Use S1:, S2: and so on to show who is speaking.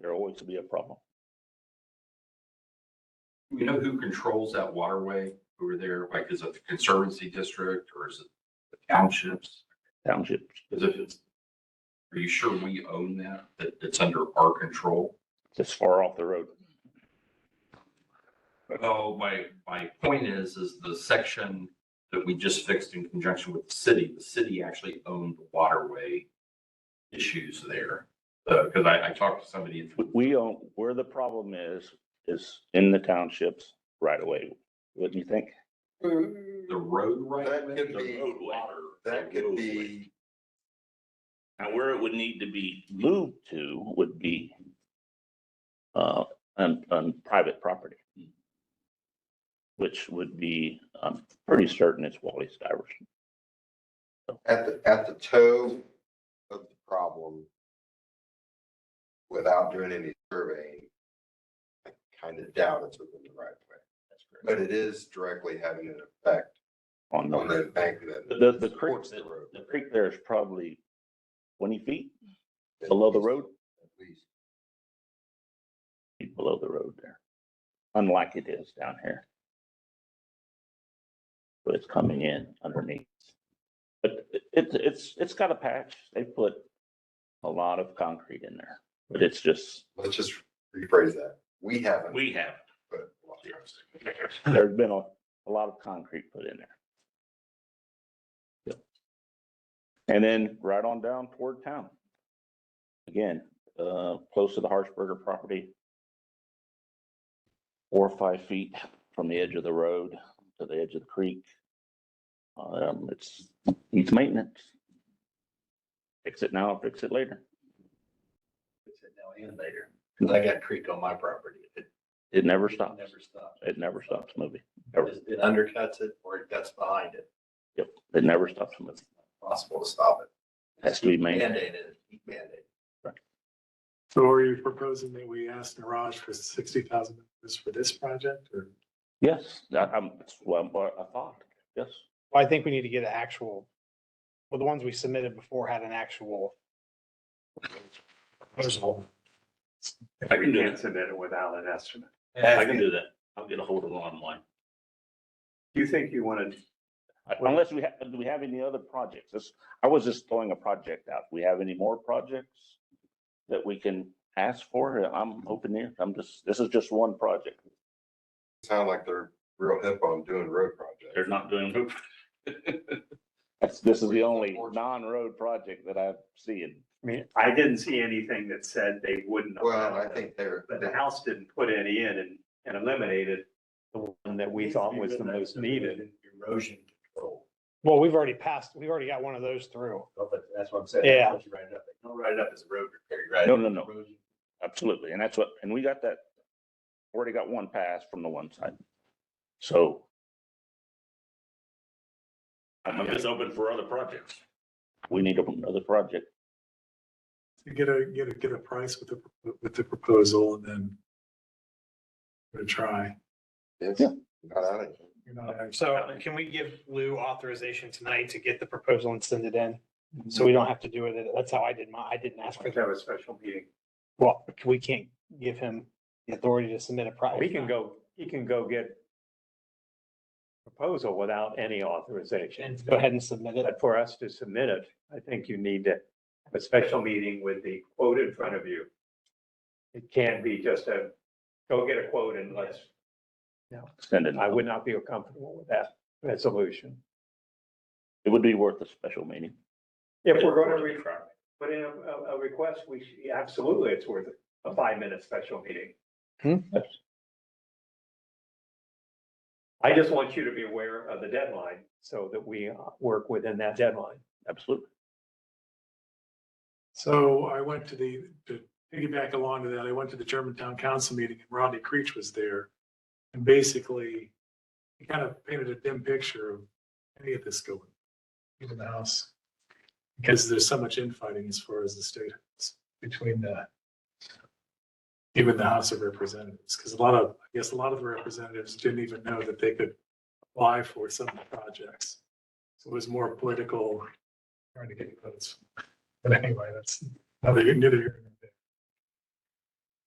S1: there always will be a problem.
S2: We know who controls that waterway over there, like is it the conservancy district or is it the townships?
S1: Townships,
S2: Because if it's, are you sure we own that, that it's under our control?
S1: just far off the road.
S2: Well, my, my point is, is the section that we just fixed in conjunction with the city, the city actually owned the waterway issues there. Because I, I talked to somebody, in-
S3: Hmm.
S1: We- We don't, where the problem is, is in the townships right away, wouldn't you think?
S4: Mm-hmm.
S2: the road right
S5: That
S2: away,
S5: could
S2: the
S5: be-
S2: roadway.
S5: That could be,
S1: Now, where it would need to be moved to would be uh, on, on private property. Which would be, I'm pretty certain it's Wally Stiverson.
S5: at the, at the toe of the problem, without doing any surveying, I kind of doubt it's within the right way. But it is directly having an effect
S1: On
S5: on
S1: the,
S5: the embankment.
S1: the, the creek,
S5: Supports the road.
S1: the creek there is probably twenty feet below the road,
S5: At least.
S1: feet below the road there. Unlike it is down here. But it's coming in underneath. But it- it's, it's, it's got a patch. They put a lot of concrete in there, but it's just
S5: Let's just rephrase that. We haven't.
S1: We have.
S5: But
S1: There's been a, a lot of concrete put in there. Yep. And then right on down toward town. Again, uh, close to the Harshberger property. Four or five feet from the edge of the road to the edge of the creek. Um, it's, needs maintenance. Fix it now, fix it later.
S3: fix it now and later, because I got creek on my property. It
S1: It never
S3: it
S1: stops.
S3: Never stops.
S1: It never stops moving. Ever.
S3: It it undercuts it or it guts behind it.
S1: It never stops moving.
S3: Possible to stop it.
S1: Has to be maintained.
S3: Band-aid it, band-aid.
S6: So are you proposing that we ask Naraj for sixty thousand dollars for this project or?
S1: Yes, that, I'm, that's what I thought, yes.
S7: Well, I think we need to get an actual, well, the ones we submitted before had an actual. proposal.
S8: I can't submit it without an estimate.
S1: I can do that. I'll get a hold of them online.
S8: Do you think you want to,
S1: Unless we have, do we have any other projects? This, I was just throwing a project out. We have any more projects that we can ask for? I'm open here. I'm just, this is just one project.
S5: Sound like they're real hip on doing road projects.
S1: They're not doing. That's, this is the only non-road project that I've seen.
S8: I mean, I didn't see anything that said they wouldn't.
S5: Well,
S8: allow
S5: I
S8: it.
S5: think they're,
S8: But the House didn't put any in and, and eliminated
S3: The one that
S8: we thought was the most needed.
S3: Erosion control,
S7: Well, we've already passed, we've already got one of those through.
S3: Well, but that's what I'm saying.
S7: Yeah.
S3: Don't you write it up. Don't write it up as a road repair, right?
S1: No, no, no. Absolutely. And that's what, and we got that, already got one pass from the one side. So. I'm just open for other projects. We need another project.
S6: to Get a, get a, get a price with the, with the proposal and then give it a try.
S5: it's
S1: Yeah.
S5: not out of here.
S6: You're not actually-
S7: So can we give Lou authorization tonight to get the proposal and send it in?
S4: Mm-hmm.
S7: So we don't have to do it. That's how I did my, I didn't ask for
S8: Let's
S7: that.
S8: have a special meeting.
S7: Well, we can't give him the authority to submit a project.
S4: He can go, he can go get proposal without any authorization.
S7: Go ahead and submit it.
S4: But for us to submit it, I think you need to,
S8: A special meeting with the quote in front of you.
S4: it
S8: Can't
S4: can't be,
S8: be just a, go get a quote and let's,
S1: Send it.
S4: I would not feel comfortable with that resolution.
S1: It would be worth a special meeting.
S8: if we're going to re put in a, a, a request, we should, absolutely, it's worth a five-minute special meeting. I just want you to be aware of the deadline.
S4: So that we uh, work within that deadline.
S1: Absolutely.
S6: So I went to the, to piggyback along to that, I went to the Germantown Council meeting and Rodney Creech was there. And basically, he kind of painted a dim picture of any of this going in the House. Because there's so much infighting as far as the state is between the even the House of Representatives, because a lot of, I guess, a lot of the representatives didn't even know that they could apply for some of the projects. So it was more political, trying to get votes. But anyway, that's neither here nor there.